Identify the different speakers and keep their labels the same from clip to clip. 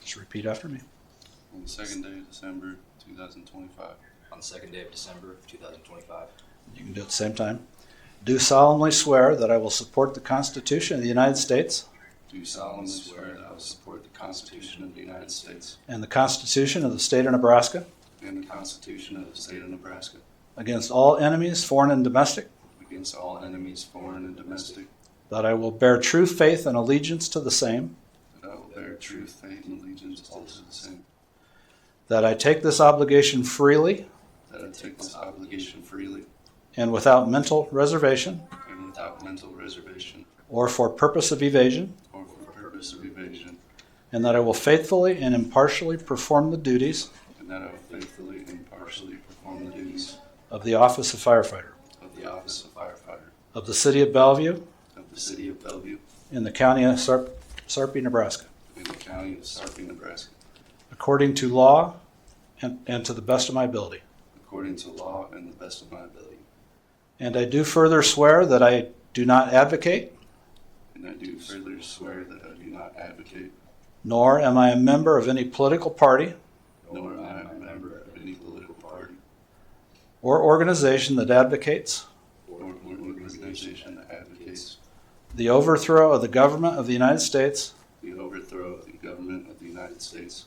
Speaker 1: Just repeat after me.
Speaker 2: On the second day of December 2025,
Speaker 3: on the second day of December of 2025.
Speaker 1: You can do it at the same time. Do solemnly swear that I will support the Constitution of the United States
Speaker 2: do solemnly swear that I will support the Constitution of the United States
Speaker 1: and the Constitution of the State of Nebraska
Speaker 2: and the Constitution of the State of Nebraska
Speaker 1: against all enemies, foreign and domestic,
Speaker 2: against all enemies, foreign and domestic,
Speaker 1: that I will bear true faith and allegiance to the same,
Speaker 2: that I will bear true faith and allegiance all to the same,
Speaker 1: that I take this obligation freely
Speaker 2: that I take this obligation freely
Speaker 1: and without mental reservation
Speaker 2: and without mental reservation
Speaker 1: or for purpose of evasion,
Speaker 2: or for the purpose of evasion,
Speaker 1: and that I will faithfully and impartially perform the duties
Speaker 2: and that I will faithfully and impartially perform the duties
Speaker 1: of the office of firefighter
Speaker 2: of the office of firefighter
Speaker 1: of the city of Bellevue
Speaker 2: of the city of Bellevue
Speaker 1: in the county of Sar- Sarpy, Nebraska,
Speaker 2: in the county of Sarpy, Nebraska,
Speaker 1: according to law and, and to the best of my ability.
Speaker 2: according to law and the best of my ability.
Speaker 1: And I do further swear that I do not advocate,
Speaker 2: And I do further swear that I do not advocate,
Speaker 1: nor am I a member of any political party
Speaker 2: nor am I a member of any political party
Speaker 1: or organization that advocates
Speaker 2: or organization that advocates
Speaker 1: the overthrow of the government of the United States,
Speaker 2: the overthrow of the government of the United States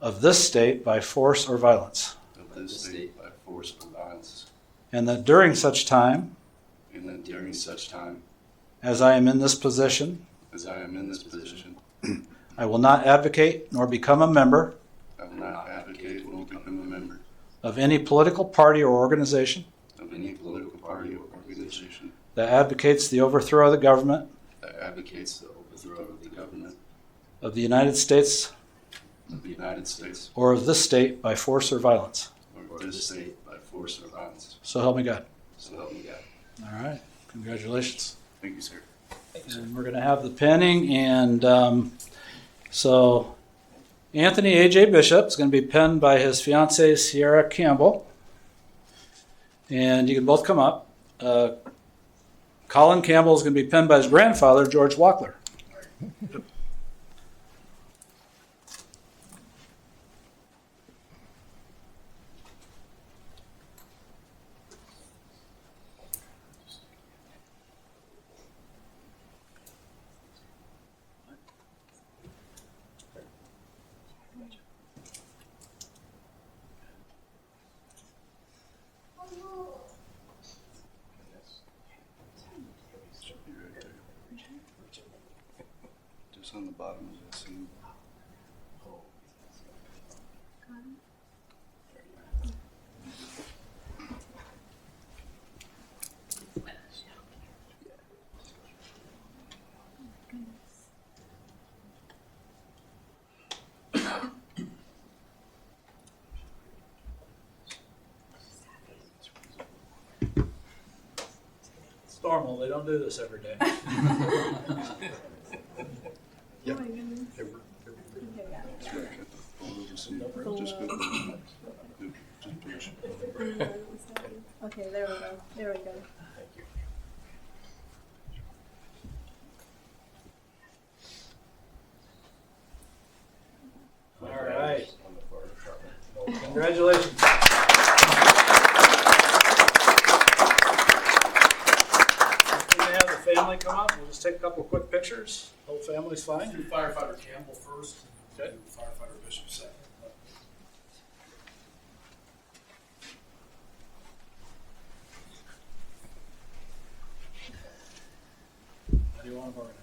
Speaker 1: of this state, by force or violence.
Speaker 2: of this state by force or violence,
Speaker 1: And that during such time
Speaker 2: and that during such time
Speaker 1: as I am in this position,
Speaker 2: as I am in this position,
Speaker 1: I will not advocate nor become a member
Speaker 2: I will not advocate nor become a member
Speaker 1: of any political party or organization
Speaker 2: of any political party or organization
Speaker 1: that advocates the overthrow of the government
Speaker 2: that advocates the overthrow of the government
Speaker 1: of the United States
Speaker 2: of the United States
Speaker 1: or of this state by force or violence.
Speaker 2: or this state by force or violence.
Speaker 1: So help me God.
Speaker 2: So help me God.
Speaker 1: All right. Congratulations.
Speaker 2: Thank you, sir.
Speaker 1: And we're going to have the pinning, and um, so Anthony A.J. Bishop is going to be pinned by his fiancee Sierra Campbell. And you can both come up. Uh, Colin Campbell is going to be pinned by his grandfather, George Walkler.
Speaker 2: Be right there. Just on the bottom of that scene.
Speaker 1: It's normal, they don't do this every day.
Speaker 4: Oh,
Speaker 2: Just go to the next. Just push.
Speaker 4: Okay, there we go. There we go.
Speaker 1: All right. Congratulations. We're gonna have the family come up, we'll just take a couple of quick pictures, whole family's fine.
Speaker 5: Do firefighter Campbell first, then firefighter Bishop second.
Speaker 1: How do you want them organized?